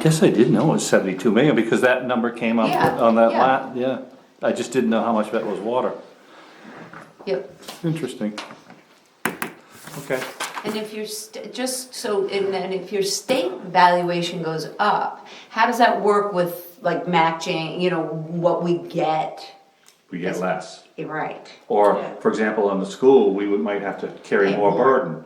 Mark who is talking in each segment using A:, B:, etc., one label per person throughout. A: guess I did know it was seventy-two million, because that number came up
B: Yeah,
A: on that
B: yeah.
A: lot, yeah. I just didn't know how much that was water.
B: Yep.
A: Interesting. Okay.
B: And if your, st- just so, and then if your state valuation goes up, how does that work with like matching, you know, what we get?
A: We get less.
B: Right.
A: Or, for example, on the school, we would, might have to carry
B: Pay
A: more
B: more.
A: burden.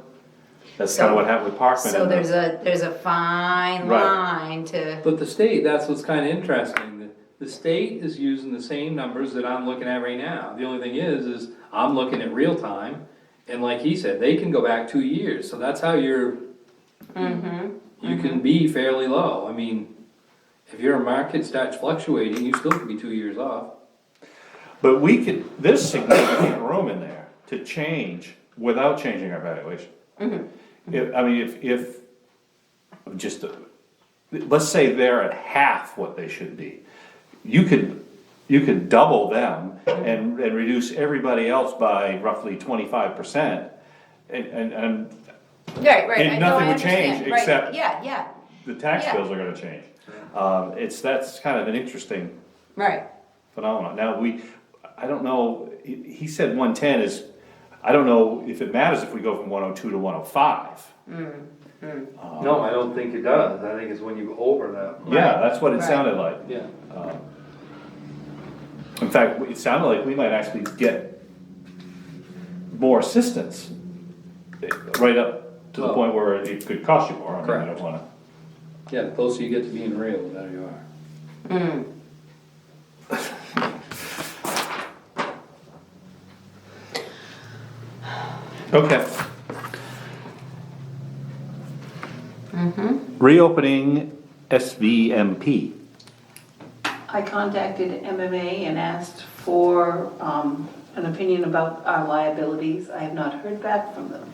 A: That's kinda
B: So-
A: what happened with Parkman.
B: So
A: and the-
B: there's a, there's a fine
A: Right.
B: line to,
C: But the state, that's what's kinda interesting, the, the state is using the same numbers that I'm looking at right now. The only thing is, is I'm looking at real time, and like he said, they can go back two years, so that's how you're. You can be fairly low, I mean, if your market starts fluctuating, you still could be two years off.
A: But we could, there's significant room in there to change without changing our valuation. If, I mean, if, if, just, uh, let's say they're at half what they should be. You could, you could double them and, and reduce everybody else by roughly twenty-five percent. And, and, and
B: right, right.
A: And
B: I know, I
A: nothing would change
B: understand, right,
A: except-
B: Yeah, yeah,
A: the tax
B: Yeah.
A: bills are gonna change. Um, it's, that's kind of an interesting
B: right.
A: phenomenon. Now, we, I don't know, he, he said one ten is, I don't know if it matters if we go from one oh two to one oh five. Um,
C: No, I don't think it does, I think it's when you go over that.
A: Yeah, that's what it
B: Right.
A: sounded like.
C: Yeah.
A: In fact, it sounded like we might actually get more assistance. eh, Right up to the
C: Well-
A: point where it could cost you more, I mean, I
C: Correct.
A: don't wanna,
C: Yeah, the closer you get to being real, the better you are.
A: okay. Reopening SVMP.
D: I contacted MMA and asked for um, an opinion about our liabilities. I have not heard back from them.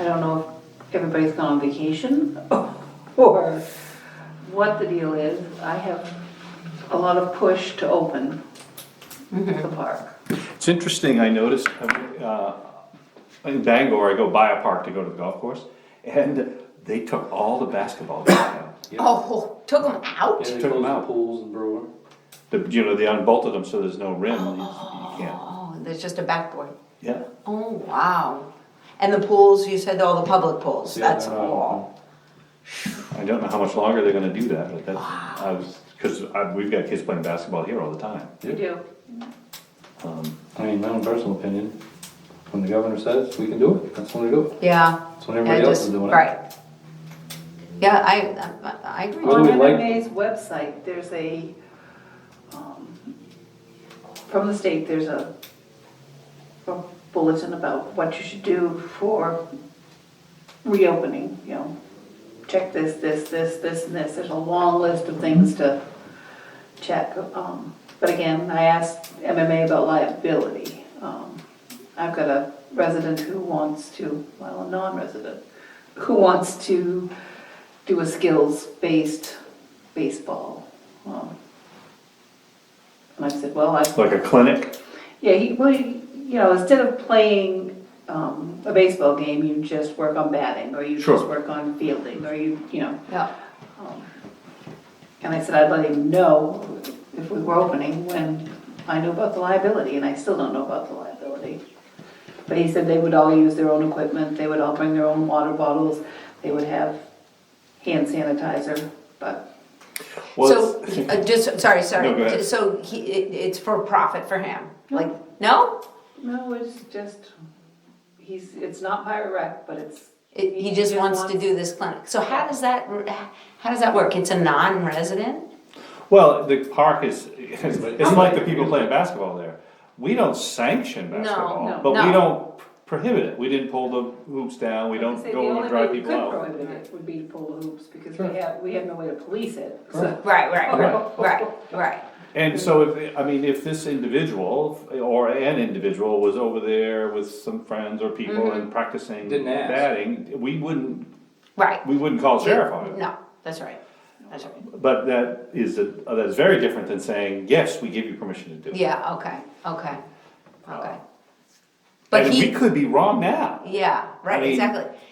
D: I don't know if everybody's gone on vacation or what the deal is. I have a lot of push to open the park.
A: It's interesting, I noticed, uh, in Bangor, I go by a park to go to the golf course, and they took all the basketball games out.
B: Oh, took them out?
C: And they
A: Took 'em
C: close the
A: out.
C: pools and brewer.
A: The, you know, they unbolted them so there's no rim, you you can't,
B: Oh, there's just a backboard.
A: yeah.
B: Oh, wow. And the pools, you said all the public pools,
C: Yeah,
B: that's
C: they're not
B: all.
A: I don't know how much longer they're gonna do that, but that's, I was, cause I, we've got kids playing basketball here all the time.
D: You do.
C: I mean, my own personal opinion, when the governor says we can do it, that's when we do it.
B: Yeah.
C: That's when everybody
B: I
C: else
B: just-
C: is doing it.
B: Right. Yeah, I, I, I agree.
C: Well,
D: On
C: we like-
D: MMA's website, there's a, um, from the state, there's a a bulletin about what you should do for reopening, you know. Check this, this, this, this, and this, there's a long list of things to check. um, But again, I asked MMA about liability. Um, I've got a resident who wants to, well, a non-resident, who wants to do a skills-based baseball. um, And I said, well, I
A: Like a clinic,
D: yeah, he, well, he- you know, instead of playing um, a baseball game, you just work on batting, or you
A: Sure.
D: just work on fielding, or you, you know.
B: Yeah,
D: And I said I'd let him know if we were opening when I knew about the liability, and I still don't know about the liability. But he said they would all use their own equipment, they would all bring their own water bottles, they would have hand sanitizer, but
A: well,
B: so,
A: it's-
B: uh, just, sorry, sorry.
A: No, go ahead.
B: So he, it, it's for profit for him, like, no?
D: no, it's just, he's, it's not pirate wreck, but it's.
B: It, he just wants to do this clinic. So how does that, how does that work? It's a non-resident?
A: well, the park is, it's like the people playing basketball there. We don't sanction basketball,
D: no,
A: but we
B: no.
A: don't prohibit it, we didn't pull the hoops down, we don't
D: I'd say the
A: go and
D: only
A: drive
D: way we
A: people
D: could
A: out.
D: prohibit it Would be to pull the hoops, because
C: Sure.
D: we have, we have no way to police it, so.
C: Correct.
B: Right, right, right, right, right.
A: And so if, I mean, if this individual, or an individual was over there with some friends or people and practicing
C: Mm-hmm. Didn't ask.
A: batting, we wouldn't,
B: Right.
A: we wouldn't call sheriff on it.
B: No, that's right, that's right.
A: But that is, a- that is very different than saying, yes, we give you permission to do it.
B: Yeah, okay, okay, okay. But
A: And we
B: he,
A: could be wrong now.
B: yeah,
A: I
B: right,
A: mean-
B: exactly.